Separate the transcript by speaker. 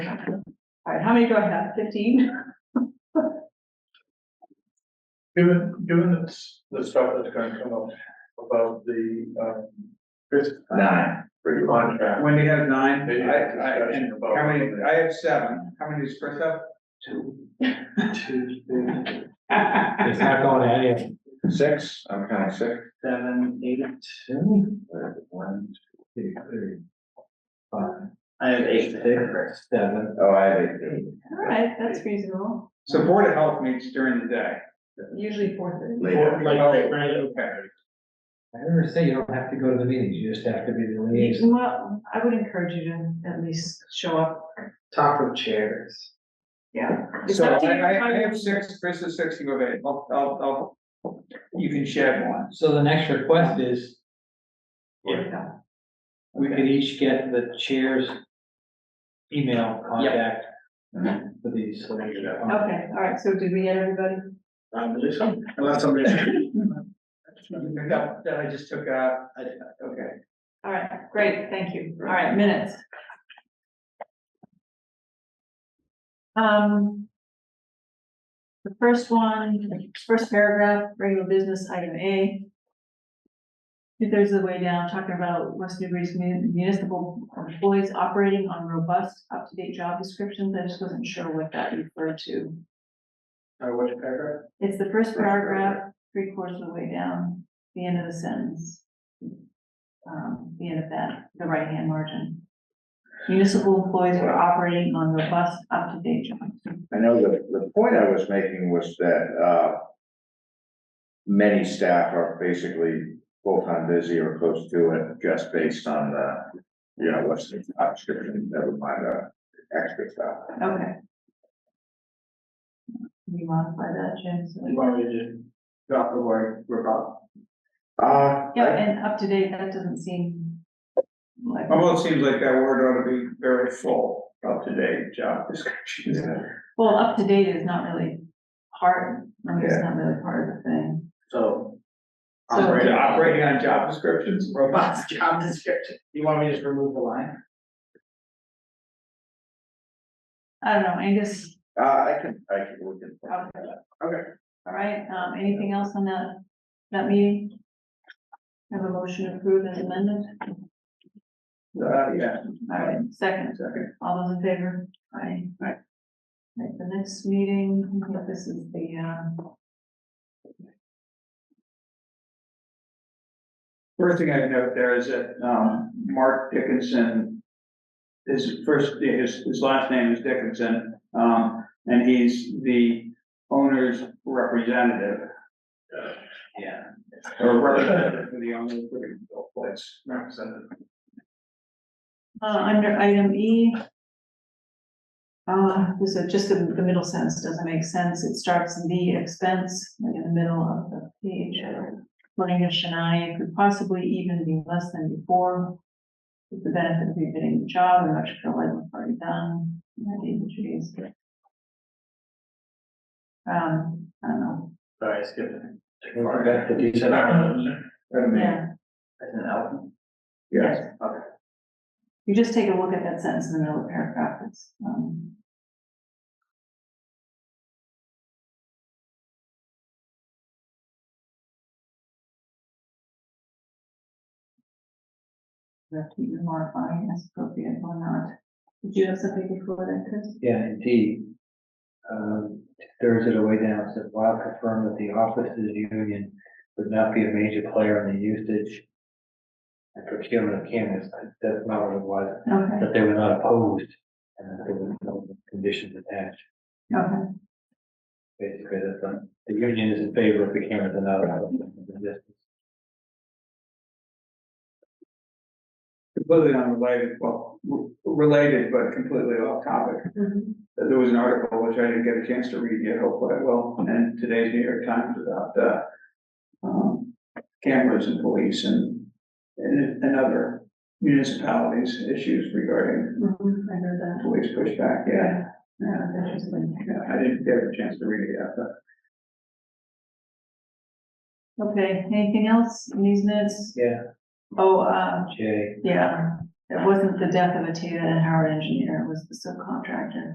Speaker 1: How many do I have? Fifteen?
Speaker 2: Given, given the, s- the stuff that's gonna come up about the, um, this
Speaker 3: Nine.
Speaker 2: contract.
Speaker 4: Wendy has nine,
Speaker 2: They
Speaker 4: I,
Speaker 2: had
Speaker 4: I,
Speaker 2: discussion
Speaker 4: and
Speaker 2: about-
Speaker 4: how many, I have seven, how many does Chris
Speaker 2: Tuesday,
Speaker 4: have?
Speaker 5: It's not going to any of them.
Speaker 3: Six, I'm counting six.
Speaker 6: seven, eight,
Speaker 3: Two. One, two, three, five.
Speaker 6: I have eight.
Speaker 5: Seven.
Speaker 3: Oh, I have eight.
Speaker 1: All right, that's reasonable.
Speaker 4: So Board of Health meets during the day.
Speaker 1: Usually four thirty.
Speaker 3: Later.
Speaker 5: Like,
Speaker 4: Oh,
Speaker 5: like, right,
Speaker 4: Okay.
Speaker 5: I never say you don't have to go to the meetings, you just have to be the liaison.
Speaker 1: Well, I would encourage you to at least show up.
Speaker 6: Talk of chairs.
Speaker 1: Yeah. It's
Speaker 4: So I,
Speaker 1: up to you.
Speaker 4: I, I have six, Chris is six, you have eight, I'll, I'll, I'll, you can share one.
Speaker 5: So the next request is, if
Speaker 1: Yeah.
Speaker 5: we could each get the chair's email contact
Speaker 3: Mm-hmm.
Speaker 5: for these. so we can-
Speaker 1: Okay, all right, so did we get everybody?
Speaker 6: I believe so, unless somebody.
Speaker 4: That, that I just took out, I, okay.
Speaker 1: All right, great, thank you. All right, minutes. Um. The first one, first paragraph, regular business item A. Two thirds of the way down, talking about West Newbury's mu- municipal employees operating on robust, up-to-date job descriptions. I just wasn't sure what that referred to.
Speaker 6: Or Uh, which paragraph?
Speaker 1: It's the first paragraph, three quarters of the way down, the end of the sentence. Um, the end of that, the right-hand margin. Municipal employees were operating on robust, up-to-date jobs.
Speaker 3: I know the, the point I was making was that, uh, many staff are basically full-time busy or close to it, just based on the, you know, what's the job description, never mind the extra stuff.
Speaker 1: Okay. Can you modify that, Jim? so-
Speaker 6: You want me to just drop the word, robust?
Speaker 3: Uh,
Speaker 1: Yeah, and up-to-date, that doesn't seem like,
Speaker 4: Although it seems like that word ought to be very full, up to date job descriptions.
Speaker 1: well, up-to-date is not really part, I mean, it's not really part of the thing.
Speaker 6: So.
Speaker 1: So-
Speaker 4: Operating, operating on job descriptions.
Speaker 6: Robust job description. You want me to just remove the line?
Speaker 1: I don't know, Angus,
Speaker 3: uh, I can, I can, we can.
Speaker 1: Okay.
Speaker 3: Okay.
Speaker 1: all right, um, anything else on that, that meeting? Have a motion to approve as amended?
Speaker 4: Uh, yeah.
Speaker 1: All right, second, all those in favor? Aye. Right. the next meeting, I think this is the, uh,
Speaker 4: First thing I note there is that, um, Mark Dickinson, his first, his, his last name is Dickinson, um, and he's the owner's representative.
Speaker 6: Yeah.
Speaker 4: Or representative for the owner, for the place, representative.
Speaker 1: uh, under item E. Uh, this is just the, the middle sentence doesn't make sense, it starts the expense like in the middle of the page. uh, According to Shania, it could possibly even be less than before. With the benefit of rebidding the job, and much feel like we've already done, that is, Um, I don't know.
Speaker 6: Sorry, I skipped it.
Speaker 5: We forgot to do
Speaker 6: You said I
Speaker 5: that.
Speaker 6: don't know.
Speaker 3: Wait a minute.
Speaker 1: Yeah,
Speaker 6: That's an L.
Speaker 3: Yes,
Speaker 6: Okay.
Speaker 1: you just take a look at that sentence in the middle of the paragraph, it's, um. You have to be modifying as appropriate or not. Did you have something before that, Chris?
Speaker 5: Yeah, indeed. Um, thirds of the way down, it says, while confirmed that the officers union would not be a major player in the usage and procurement of cameras, that's not what it was.
Speaker 1: Okay,
Speaker 5: that they were not opposed and that there were no conditions attached.
Speaker 1: okay,
Speaker 5: Basically, that's not, the union is in favor of the cameras and not allowed the distance.
Speaker 4: Completely unrelated, well, r- related, but completely off topic.
Speaker 1: Mhm.
Speaker 4: that there was an article which I didn't get a chance to read yet, hopefully I will, and today's New York Times about the um, cameras and police and, and, and other municipalities issues regarding
Speaker 1: Mhm, I heard that.
Speaker 4: police pushback, yeah.
Speaker 1: Yeah, that's interesting.
Speaker 4: Yeah, I didn't get a chance to read it yet, but
Speaker 1: Okay, anything else in these minutes?
Speaker 5: Yeah,
Speaker 1: Oh, uh,
Speaker 5: Jay.
Speaker 1: Yeah, it wasn't the death of a Tata and Howard engineer, it was the subcontractor.